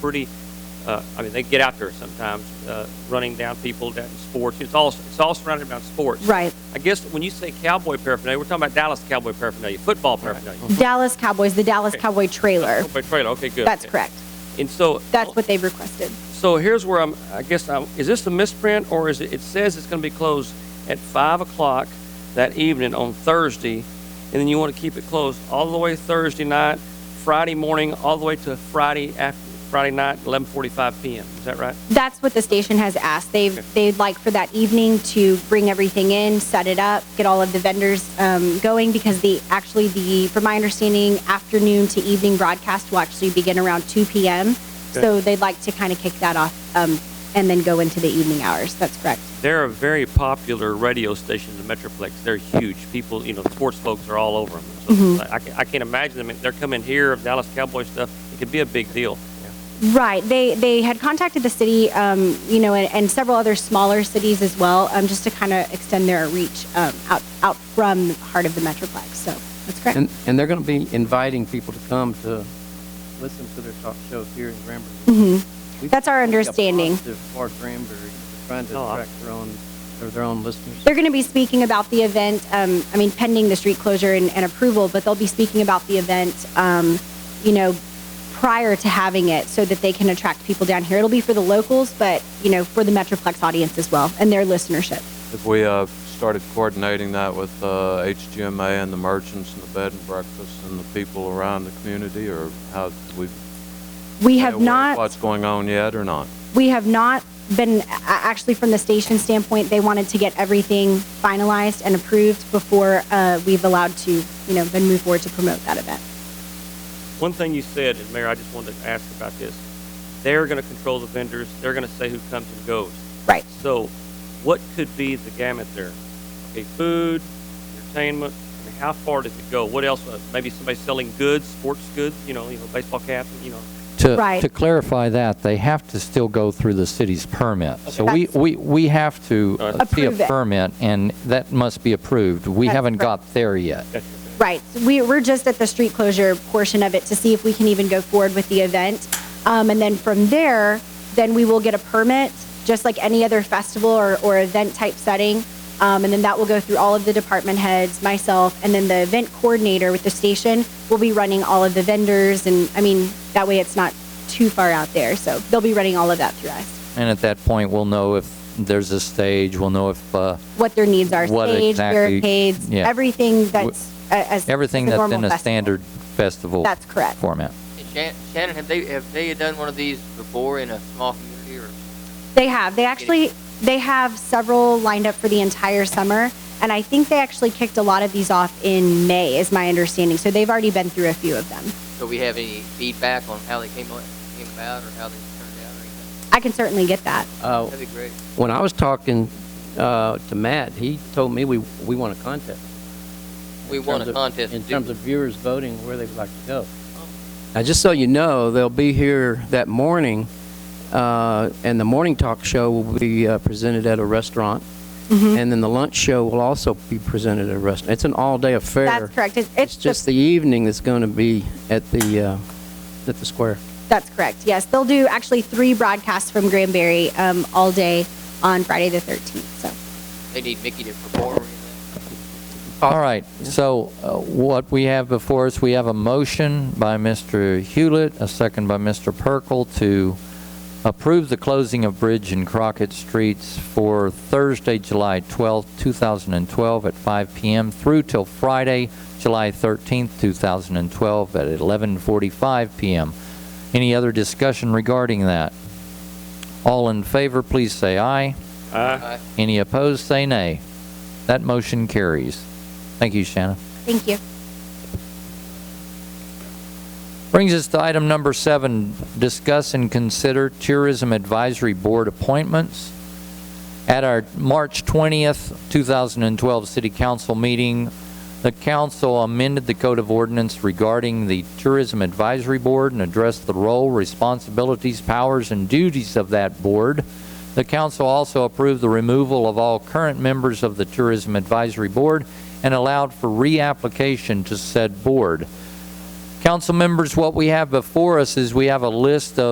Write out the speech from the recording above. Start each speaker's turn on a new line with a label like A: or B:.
A: pretty, uh, I mean, they get out there sometimes, uh, running down people, down in sports. It's all, it's all surrounded around sports.
B: Right.
A: I guess when you say cowboy paraphernalia, we're talking about Dallas cowboy paraphernalia, football paraphernalia.
B: Dallas Cowboys, the Dallas
A: Okay.
B: Cowboy trailer.
A: Cowboy trailer, okay, Oh. good.
B: That's
A: Okay.
B: correct.
A: And so. uh,
B: That's what they've requested.
A: So here's where I'm, I guess, I'm, is this a misprint or is it, it says it's going to be closed at 5 o'clock that evening on Thursday, and then you want to keep it closed all the way Thursday night, Friday morning, all the way to Friday after, Friday night, 11.45 p.m. Is that right?
B: That's what the station has asked. They've, they'd like for that evening to bring everything in, set it up, get all of the vendors um, going because the, actually the, from my understanding, afternoon to evening broadcast will actually begin around 2 p.m. So they'd like to kind of kick that off um, and then go into the evening hours. That's correct.
A: They're a very popular radio station in the Metroplex. They're huge. People, you know, sports folks are all over them. So I, ca- I can't imagine them. They're coming here of Dallas Cowboy stuff. It could be a big deal.
B: Right. They they had contacted the city, um, you know, and, and several other smaller cities as well, um, just to kind of extend their reach um, out out from the heart of the metroplex. So that's correct.
C: And, and they're going to be inviting people to come to listen to their talk shows here in Granbury. We've
B: Mm-hmm. That's our
C: got a
B: understanding.
C: positive For Granbury, They're trying to
A: Oh, I-
C: attract their own, their- their own listeners.
B: They're going to be speaking about the event. Um, I mean, pending the street closure and, and approval, but they'll be speaking about the event, um, you know, prior to having it, so that they can attract people down here. It'll be for the locals, but you know, for the metroplex audience as well and their listenership.
D: If we uh, started coordinating that with uh, HGMA and the merchants and the bed and breakfast and the people around the community, or how we
B: We have not.
D: what's going on yet or not?
B: We have not been, a- actually, from the station standpoint, they wanted to get everything finalized and approved before uh, we've allowed to, you know, then move forward to promote that event.
A: One thing you said, and Mayor, I just wanted to ask about this. They're going to control the vendors. They're going to say who comes and goes.
B: Right.
A: So, what could be the gamut there? Okay, food, entertainment. I mean, how far does it go? What else? Uh, Maybe somebody selling goods, sports goods. You know, you know, baseball caps. You know,
E: To,
B: Right.
E: to clarify that, they have to still go through the city's permit. So we,
B: That's-
E: we, we have to
A: All right.
E: uh, see a
B: Approve it.
E: permit, and that must be approved. We
B: That's
E: haven't
B: correct.
E: got there yet.
A: that's
B: Right. So We, we're just at the street closure portion of it to see if we can even go forward with the event. Um, and then from there, then we will get a permit, just like any other festival or, or event type setting. Um, and then that will go through all of the department heads, myself, and then the event coordinator with the station will be running all of the vendors. And I mean, that way it's not too far out there. So they'll be running all of that through us.
E: And at that point, we'll know if there's a stage, we'll know if, uh,
B: What their needs are,
E: What
B: stage,
E: exactly-
B: barricades,
E: yeah.
B: everything that's a- as
E: everything
B: as a
E: that's
B: normal
E: in a
B: festival.
E: standard festival
B: That's correct.
E: format.
F: Hey, Shan- Shannon, have they have they done one of these before in a small community or?
B: They have. They actually they have several lined up for the entire summer, and I think they actually kicked a lot of these off in May, is my understanding. So they've already been through a few of them.
F: So we have any feedback on how they came, o- came about or how they turned out or anything?
B: I can certainly get that.
C: Uh,
F: That'd be great.
C: When I was talking uh, to Matt, he told me we, we want a contest.
F: We
C: in
F: won
C: terms
F: a
C: of-
F: contest. Oh.
C: In
F: to do
C: terms of viewers voting where they would like to go. Now, just so you know, they'll be here that morning, uh, and the morning talk show will be uh, presented at a restaurant.
B: Mm-hmm.
C: And then the lunch show will also be presented at a restaurant. It's an all-day affair.
B: That's correct. It's,
C: It's
B: it's
C: just the evening that's going to be at the, uh, at the square.
B: that's correct. Yes, they'll do actually three broadcasts from Granbury um, all day on Friday the thirteenth. So
F: They need Mickey to perform or anything.
E: All right, so uh, what we have before us, we have a motion by Mr. Hewlett, a second by Mr. Perkel to approve the closing of Bridge and Crockett Streets for Thursday, July 12th, 2012 at 5 PM through till Friday, July 13th, 2012 at 11:45 PM. Any other discussion regarding that? All in favor, please say aye.
A: it. Uh,
F: Aye.
E: Any opposed, say nay. That motion carries. Thank you, Shannon.
B: thank you.
E: Brings us to item number seven, discuss and consider tourism advisory board appointments. At our March 20th, 2012 city council meeting, the council amended the code of ordinance regarding the tourism advisory board and addressed the role, responsibilities, powers, and duties of that board. The council also approved the removal of all current members of the tourism advisory board and allowed for reapplication to said board. Council members, what we have before us is we have a list of